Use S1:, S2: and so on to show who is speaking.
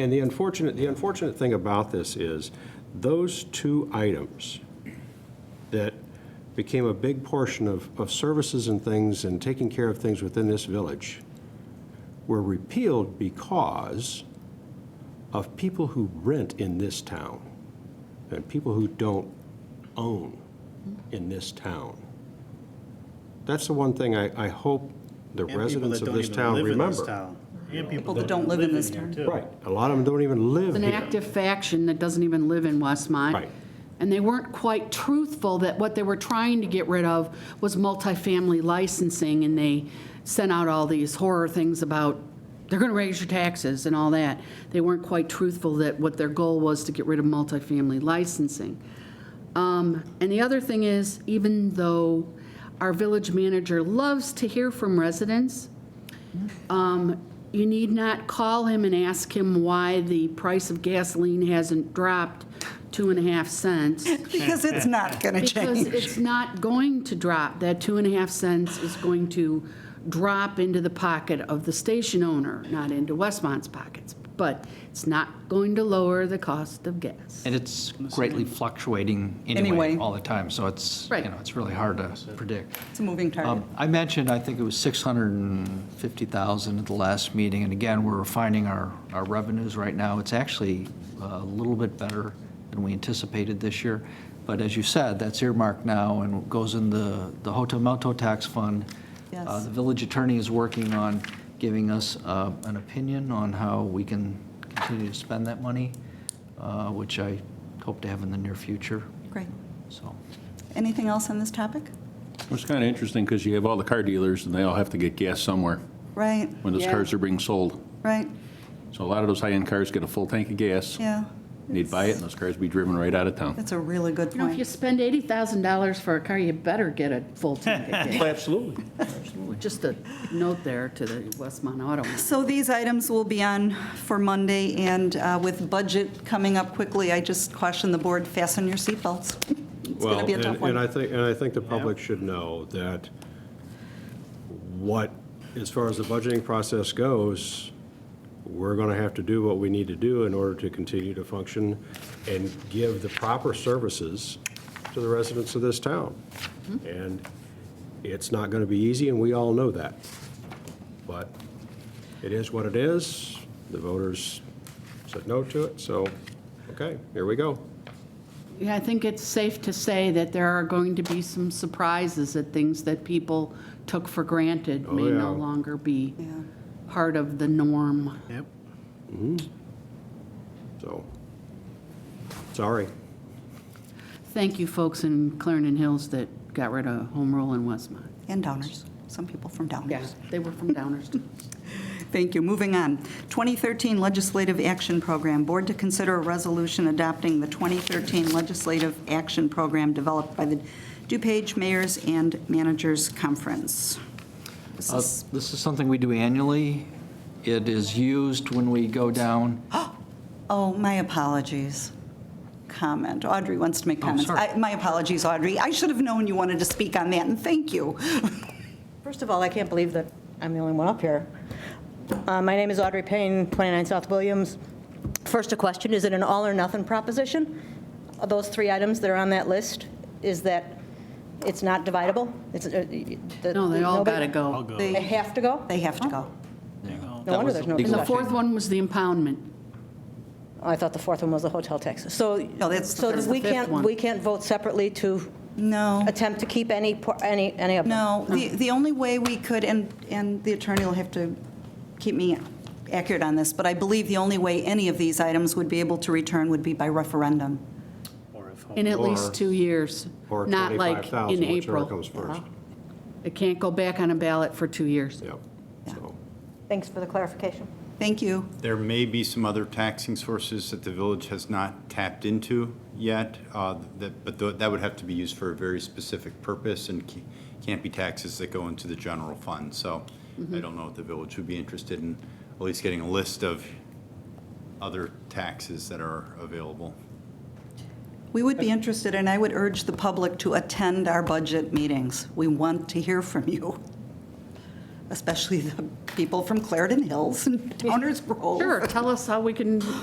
S1: And the unfortunate, the unfortunate thing about this is, those two items that became a big portion of, of services and things and taking care of things within this village were repealed because of people who rent in this town and people who don't own in this town. That's the one thing I, I hope the
S2: And people that
S1: residents of
S2: don't
S1: this
S2: even
S1: town
S2: live in
S1: remember.
S2: this town. And people that
S3: don't live in this
S2: here,
S3: town.
S2: too.
S1: Right, a lot of them don't even live
S4: It's an
S1: here.
S4: active faction that doesn't even live in Westmont.
S1: Right.
S4: And they weren't quite truthful that what they were trying to get rid of was multifamily licensing, and they sent out all these horror things about, they're going to raise your taxes and all that. They weren't quite truthful that what their goal was to get rid of multifamily licensing. Um, And the other thing is, even though our village manager loves to hear from residents, um, you need not call him and ask him why the price of gasoline hasn't dropped two and a half cents.
S3: Because it's not going to
S4: Because
S3: change.
S4: it's not going to drop. That two and a half cents is going to drop into the pocket of the station owner, not into Westmont's pockets. But it's not going to lower the cost of gas.
S5: And it's greatly fluctuating anyway,
S3: Anyway.
S5: all the time, so it's, you
S4: Right.
S5: know, it's really hard to predict.
S3: It's a moving target.
S5: Um, I mentioned, I think it was 650,000 at the last meeting, and again, we're refining our, our revenues right now. It's actually uh, a little bit better than we anticipated this year, but as you said, that's earmarked now and goes in the, the Hoto Moto Tax Fund.
S3: Yes.
S5: Uh, The village attorney is working on giving us uh, an opinion on how we can continue to spend that money, uh, which I hope to have in the near future,
S3: Great.
S5: so.
S3: Anything else on this topic?
S6: It's kind of interesting because you have all the car dealers and they all have to get gas somewhere
S3: Right,
S6: when those
S4: Yeah.
S6: cars are being sold.
S3: right,
S6: So a lot of those high-end cars get a full tank of gas.
S3: yeah.
S6: They'd buy it and those cars be driven right out of town.
S3: That's a really good
S4: You know, if you
S3: point.
S4: spend $80,000 for a car, you better get a full tank of gas.
S1: Absolutely.
S4: Just a note there to the Westmont Auto.
S3: So these items will be on for Monday, and uh, with budget coming up quickly, I just caution the board, fasten your seatbelts. It's going to be a tough
S1: Well, and- and I
S3: one.
S1: think, and I think the public should know that what, as far as the budgeting process goes, we're going to have to do what we need to do in order to continue to function and give the proper services to the residents of this town.
S3: Mm-hmm.
S1: And it's not going to be easy, and we all know that. But it is what it is. The voters said no to it, so, okay, here we go.
S4: Yeah, I think it's safe to say that there are going to be some surprises at things that people took for granted
S1: Oh,
S4: may
S1: yeah.
S4: no longer be
S3: Yeah.
S4: part of the norm.
S2: Yep.
S1: So, sorry.
S4: Thank you, folks in Clarendon Hills that got rid of home rule in Westmont.
S3: And downers, some people from
S4: Yeah,
S3: downers.
S4: they were from Downers.
S3: Thank you. Moving on. 2013 Legislative Action Program. Board to consider a resolution adopting the 2013 Legislative Action Program developed by the DuPage Mayors and Managers Conference. This
S5: Uh,
S3: is-
S5: This is something we do annually. It is used when we go down.
S3: Oh, my apologies. Comment. Audrey wants to make
S5: Oh,
S3: comments.
S5: sorry.
S3: I- My apologies, Audrey. I should have known you wanted to speak on that, and thank you.
S7: First of all, I can't believe that I'm the only one up here. Uh, My name is Audrey Payne, 29 South Williams. First, a question, is it an all-or-nothing proposition? Of Those three items that are on that list, is that it's not divisible? It's, uh, the-
S4: No, they all
S7: nobody-
S4: got to go.
S2: go.
S7: They have to go? Oh,
S3: They have to go.
S7: No wonder there's no
S4: And the
S7: discussion.
S4: fourth one was the impoundment.
S7: I thought the fourth one was the hotel taxes. So,
S3: No, that's the
S7: so
S3: fifth-
S7: we
S4: the fifth
S7: can't,
S4: one.
S7: we can't vote separately to
S3: No.
S7: attempt to keep any, por- any, any of them?
S3: No, the, the only way we could, and, and the attorney will have to keep me accurate on this, but I believe the only way any of these items would be able to return would be by referendum.
S2: Or if-
S4: In at
S1: Or-
S4: least two years,
S1: Or
S4: not like in
S1: 25,000, whichever
S4: April. Uh-huh.
S1: comes first.
S4: It can't go back on a ballot for two years.
S1: Yep. So,
S7: Thanks for the clarification.
S3: Thank you.
S8: There may be some other taxing sources that the village has not tapped into yet, uh, that- but tho- that would have to be used for a very specific purpose and ca- can't be taxes that go into the general fund. So I don't know if the village would be interested in at least getting a list of other taxes that are available.
S3: We would be interested, and I would urge the public to attend our budget meetings. We want to hear from you, especially the people from Clarendon Hills and Downers Grove.
S4: Sure, tell us how we can